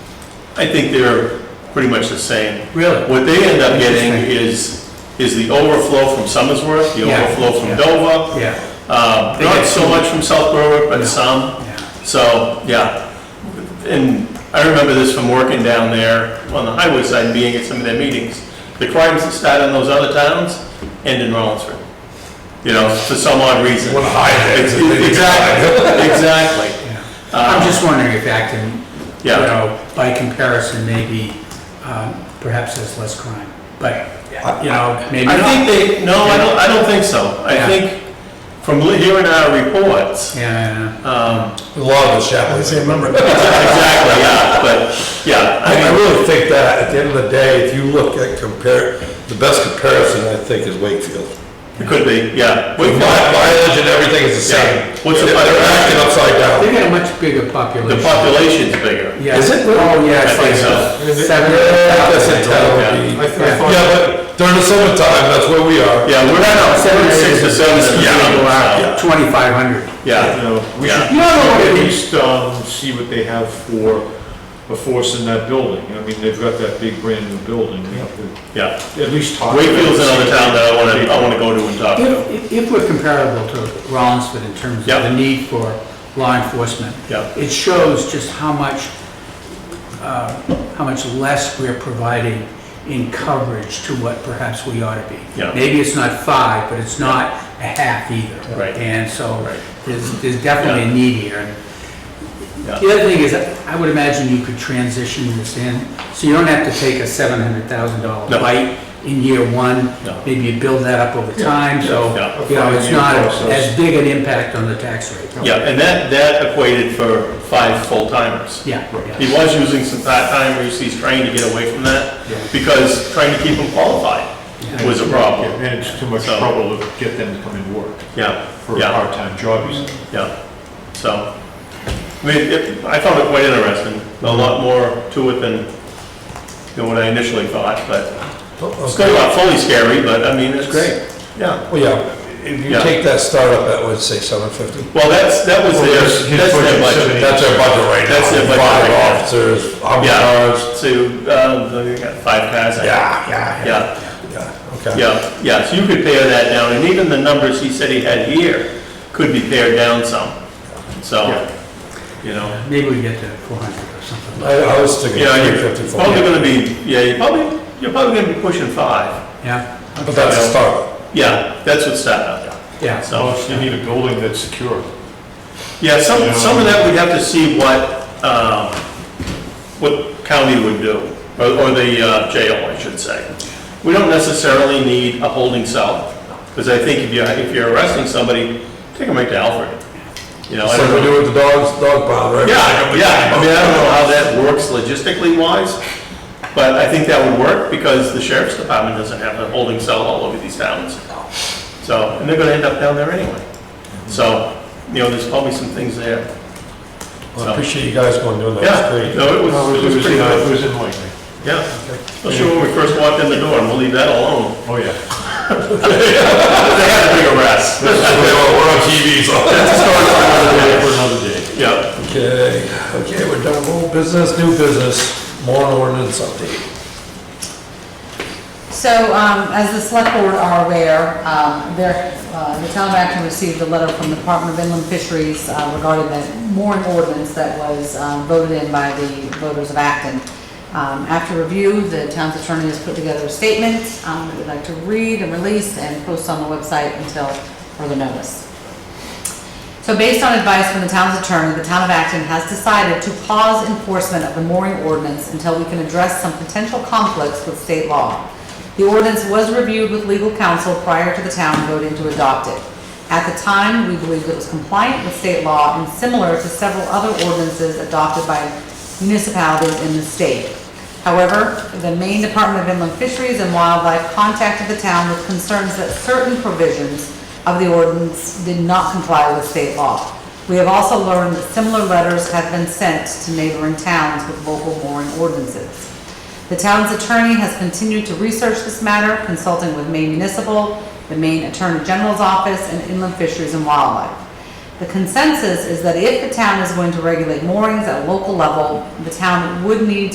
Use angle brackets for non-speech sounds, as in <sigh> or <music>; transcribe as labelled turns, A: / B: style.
A: I think they're pretty much the same.
B: Really?
A: What they end up getting is,
B: Interesting.
A: is the overflow from Summersworth, the
B: Yeah,
A: overflow from
B: yeah.
A: Dover,
B: Yeah,
A: uh,
B: They
A: not
B: get
A: so
B: some-
A: much from South Berwick, but
B: No.
A: some.
B: yeah,
A: So, yeah. And I remember this from working down there on the highway side, being at some of their meetings. The crimes that start in those other towns end in Rollinsford. You know, for some odd reason.
C: What a high head.
B: <laughs>
A: Ex- Exactly, exactly.
B: yeah. I'm
A: Uh,
B: just wondering if Acton, you
A: Yeah.
B: know, by comparison, maybe um, perhaps there's less crime, but, you know, maybe
A: I
B: not.
A: think they, no, I don't, I don't think so. I
B: Yeah.
A: think from li- hearing our reports, <laughs>
B: Yeah,
A: um,
C: A lot of the chaplains.
A: exactly, yeah, but, yeah.
C: I I
A: I mean,
C: really think that, at the end of the day, if you look at compare, the best comparison, I think, is Wakefield.
A: It could be, yeah.
C: With mi- mileage and everything is the
A: Yeah.
C: same.
A: What's the-
C: They're acting upside
B: they
C: down.
B: got a much bigger population.
A: The population's bigger.
B: Yeah.
C: Is it?
B: Oh, yeah,
A: I
B: it's
A: think
B: like
A: so.
B: seven.
C: Yeah, that's a town.
A: Yeah.
C: Yeah, but during the summertime, that's where we are.
A: Yeah, we're not,
B: Seven
A: we're six to
B: acres.
A: seven. is
C: Yeah.
A: legal
C: Yeah.
A: out.
B: Twenty-five hundred.
A: Yeah,
D: We
A: Yeah.
D: should
B: You don't know what it
D: at
B: is.
D: least, um, see what they have for a force in that building. I mean, they've got that big brand new building. We could
A: yeah.
D: At least talk. to them,
A: Wakefield's another
D: see
A: town that I wanna, I
D: what
A: wanna go to and talk to.
B: If, if we're comparable to Rollinsford in terms of
A: Yeah.
B: the need for law enforcement,
A: Yeah.
B: it shows just how much, uh, how much less we're providing in coverage to what perhaps we ought to be.
A: Yeah.
B: Maybe it's not five, but it's not a half either.
A: Right.
B: And so
A: Right.
B: there's, there's definitely a need here. And
A: Yeah.
B: The other thing is, I would imagine you could transition this in, so you don't have to take a seven hundred thousand dollar
A: No.
B: bite in year one.
A: No.
B: Maybe you build that up over time, so,
A: Yeah.
B: you know, it's
D: Yeah.
B: not
D: Process.
B: as big an impact on the tax rate.
A: Yeah, and that, that equated for five full-timers.
B: Yeah, yeah,
A: He was using some part-timers, he's trying to get away from that, because trying to keep them qualified
D: they-
A: was a
D: Yeah,
A: problem.
D: And it's too much
A: So-
D: trouble to get them to come and work
A: Yeah,
D: for a
A: Yeah.
D: part-time job, you said.
A: yeah. So, I mean, it- I found it quite interesting, a lot more to it than, than what I initially thought, but
C: Oh,
A: it's still not fully scary, but I mean, it's.
C: great.
A: Yeah.
C: Well, yeah, if you
A: Yeah.
C: take that startup, that would say seven fifty.
A: Well, that's, that was their,
D: Well, his- his
A: that's their
D: budget's
A: budget.
D: seventy.
C: That's their budget right now.
A: That's their budget right
C: Five
A: now.
C: officers, how many
A: Yeah,
C: cars?
A: to, uh, they got five cars. I think.
C: Yeah, yeah, yeah,
A: Yeah.
C: yeah, okay.
A: Yeah, yeah, so you could pare that down, and even the numbers he said he had here could be pared down some, so, you know.
B: maybe we get to four hundred or something.
C: I, I was thinking
A: Yeah,
C: three
A: you're
C: fifty-four,
A: probably gonna be, yeah, you're probably, you're probably gonna be pushing five.
B: Yeah,
C: but that's a startup.
A: Yeah, that's what's set up,
B: yeah.
A: so.
D: So you need a building that's secure.
A: Yeah, some, some of that we'd have to see what, um, what county would do, or, or the uh, jail, I should say. We don't necessarily need a holding cell, because I think if you're, if you're arresting somebody, take them right to Alfred. You know, I
C: It's
A: don't
C: like we
A: know.
C: do with the dogs, dog pound, right?
A: Yeah, yeah, I mean, I don't know how that works logistically wise, but I think that would work, because the sheriff's department doesn't have a holding cell all over these towns. So, and they're gonna end up down there anyway. So, you know, there's probably some things there.
C: Well, I appreciate you guys going doing that,
A: Yeah,
C: it's great.
A: no, it
D: No,
A: was, it was pretty
D: It
A: good,
D: was enlightening.
A: yeah. Especially when we first walked in the door, and we'll leave that alone.
D: Oh, <laughs> yeah.
A: They had a big arrest.
C: We're on TV, so.
A: <laughs>
D: For another day.
A: Yeah,
C: Okay, okay, we're done, old business, new business, more ordinance update.
E: So, um, as the select board are aware, um, there, uh, the town of Acton received a letter from the Department of Inland Fisheries uh, regarding the mooring ordinance that was um, voted in by the voters of Acton. Um, after review, the town's attorney has put together a statement, um, that we'd like to read and release and post on the website until further notice. So based on advice from the town's attorney, the town of Acton has decided to pause enforcement of the mooring ordinance until we can address some potential conflicts with state law. The ordinance was reviewed with legal counsel prior to the town voting to adopt it. At the time, we believed it was compliant with state law and similar to several other ordinances adopted by municipalities in the state. However, the Maine Department of Inland Fisheries and Wildlife contacted the town with concerns that certain provisions of the ordinance did not comply with state law. We have also learned that similar letters have been sent to neighboring towns with local mooring ordinances. The town's attorney has continued to research this matter, consulting with Maine Municipal, the Maine Attorney General's Office, and Inland Fisheries and Wildlife. The consensus is that if the town is going to regulate moorings at a local level, the town would need